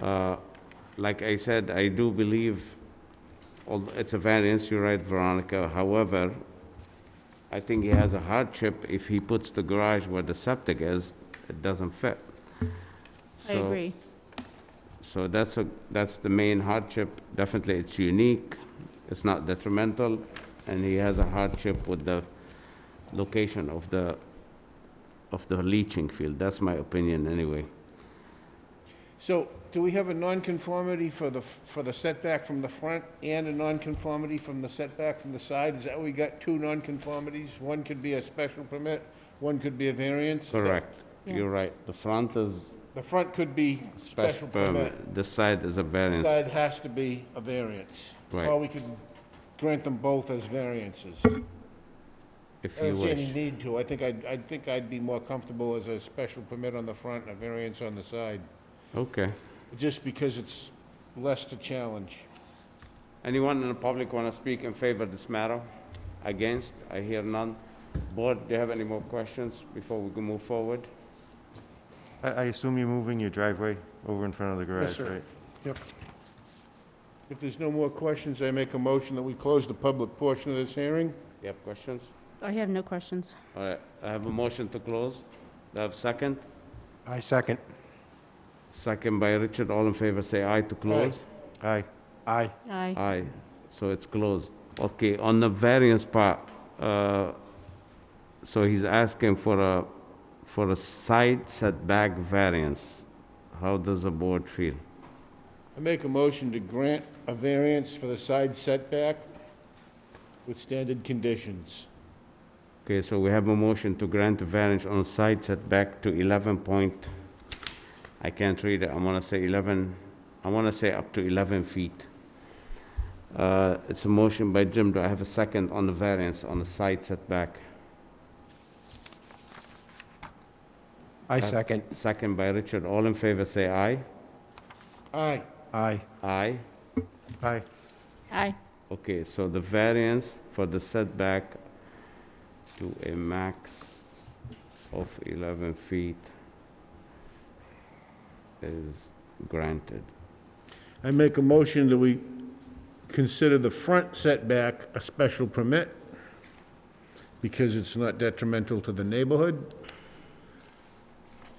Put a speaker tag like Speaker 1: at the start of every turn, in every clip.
Speaker 1: Uh, Like I said, I do believe, al- it's a variance, you're right, Veronica. However, I think he has a hardship if he puts the garage where the septic is, it doesn't fit.
Speaker 2: I
Speaker 1: So-
Speaker 2: agree.
Speaker 1: So that's a, that's the main hardship. Definitely, it's unique, it's not detrimental, and he has a hardship with the location of the, of the leaching field. That's my opinion, anyway.
Speaker 3: So, do we have a nonconformity for the, for the setback from the front and a nonconformity from the setback from the side? Is that we got two nonconformities? One could be a special permit, one could be a variance? Is that-
Speaker 1: Correct.
Speaker 2: Yeah.
Speaker 1: You're right. The front is
Speaker 3: The front could be
Speaker 1: special permit, um, the side is a
Speaker 3: The
Speaker 1: variance.
Speaker 3: Side has to be a variance.
Speaker 1: Right.
Speaker 3: Or we could grant them both as variances.
Speaker 1: if
Speaker 3: I
Speaker 1: you
Speaker 3: don't see
Speaker 1: wish.
Speaker 3: any need to. I think I'd, I think I'd be more comfortable as a special permit on the front and a variance on the side,
Speaker 1: Okay.
Speaker 3: just because it's less to challenge.
Speaker 1: Anyone in the public want to speak in favor of this matter? Against? I hear none. Board, do you have any more questions before we can move forward?
Speaker 4: I, I assume you're moving your driveway over in front of the garage,
Speaker 3: sir.
Speaker 4: right?
Speaker 3: If there's no more questions, I make a motion that we close the public portion of this hearing.
Speaker 1: You have questions?
Speaker 2: I have no questions.
Speaker 1: All right, I have a motion to close. Do I have second?
Speaker 5: I second.
Speaker 1: Second by Richard, all in favor, say aye to close.
Speaker 4: Aye.
Speaker 5: Aye.
Speaker 2: Aye.
Speaker 3: Uh,
Speaker 1: Aye, so it's closed. Okay, on the variance part, uh, so he's asking for a, for a side setback variance. How does the board feel?
Speaker 3: I make a motion to grant a variance for the side setback with standard conditions.
Speaker 1: Okay, so we have a motion to grant a variance on side setback to 11 point, I can't read it, I want to say 11, I want to say up to 11 feet. Uh, It's a motion by Jim, do I have a second on the variance on the side setback?
Speaker 5: I second.
Speaker 1: Second by Richard, all in favor, say aye.
Speaker 3: Aye.
Speaker 5: Aye.
Speaker 1: Aye.
Speaker 4: Aye.
Speaker 2: Aye.
Speaker 1: Okay, so the variance for the setback to a max of 11 feet is granted.
Speaker 3: I make a motion that we consider the front setback a special permit because it's not detrimental to the neighborhood.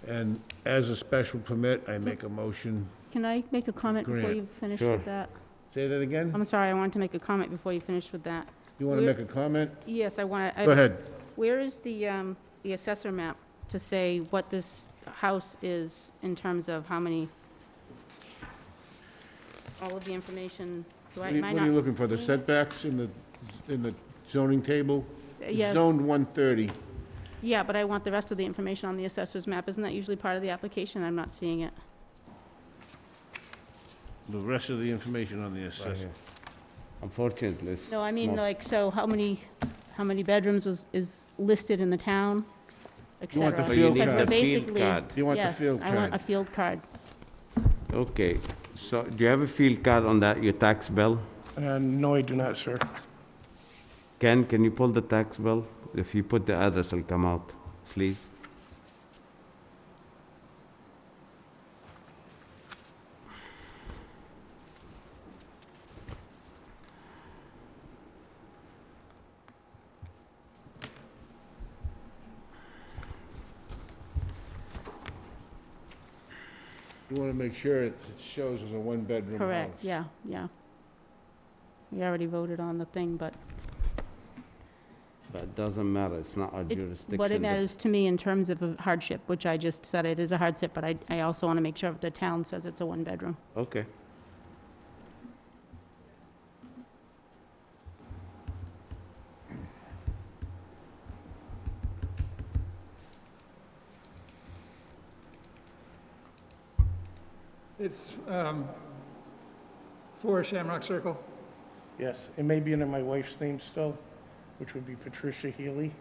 Speaker 3: And as a special permit, I make a motion,
Speaker 2: Can I make a comment before
Speaker 3: Grant.
Speaker 2: you finish
Speaker 1: Sure.
Speaker 2: with that?
Speaker 3: say that again?
Speaker 2: I'm sorry, I wanted to make a comment before you finished with that.
Speaker 3: You want to make a comment?
Speaker 2: Yes, I want to.
Speaker 3: Go ahead.
Speaker 2: Where is the, um, the assessor map to say what this house is in terms of how many? All of the information, do I,
Speaker 3: What are you-
Speaker 2: am I
Speaker 3: what
Speaker 2: not
Speaker 3: are you looking for, the
Speaker 2: seeing it?
Speaker 3: setbacks in the, in the zoning table? It's
Speaker 2: Uh, Yes.
Speaker 3: Zoned 130.
Speaker 2: Yeah, but I want the rest of the information on the assessor's map. Isn't that usually part of the application? I'm not seeing it.
Speaker 3: The rest of the information on the assessor.
Speaker 1: Unfortunately, it's...
Speaker 2: No, I mean,
Speaker 1: not-
Speaker 2: like, so how many, how many bedrooms was, is listed in the town, et
Speaker 3: You want the
Speaker 2: cetera?
Speaker 1: So
Speaker 3: a
Speaker 1: you
Speaker 3: field
Speaker 1: need
Speaker 2: Because we're
Speaker 1: the
Speaker 3: card.
Speaker 1: field
Speaker 2: basically-
Speaker 1: card.
Speaker 3: You want the field
Speaker 2: Yes, I want a
Speaker 3: card.
Speaker 2: field card.
Speaker 1: Okay, so do you have a field card on that, your tax bill?
Speaker 5: Uh, No, I do not, sir.
Speaker 1: Ken, can you pull the tax bill? If you put the address, it'll come out, please.
Speaker 3: You want to make sure it it shows as a one-bedroom house.
Speaker 2: Correct, yeah, yeah. We already voted on the thing, but
Speaker 1: That doesn't matter, it's not our
Speaker 2: it-
Speaker 1: jurisdiction.
Speaker 2: what it
Speaker 1: but-
Speaker 2: matters to me in terms of a hardship, which I just said it is a hardship, but I, I also want to make sure the town says it's a one-bedroom.
Speaker 1: Okay.
Speaker 6: It's um, for Shamrock Circle.
Speaker 7: Yes, it may be under my wife's name still, which would be Patricia Healy.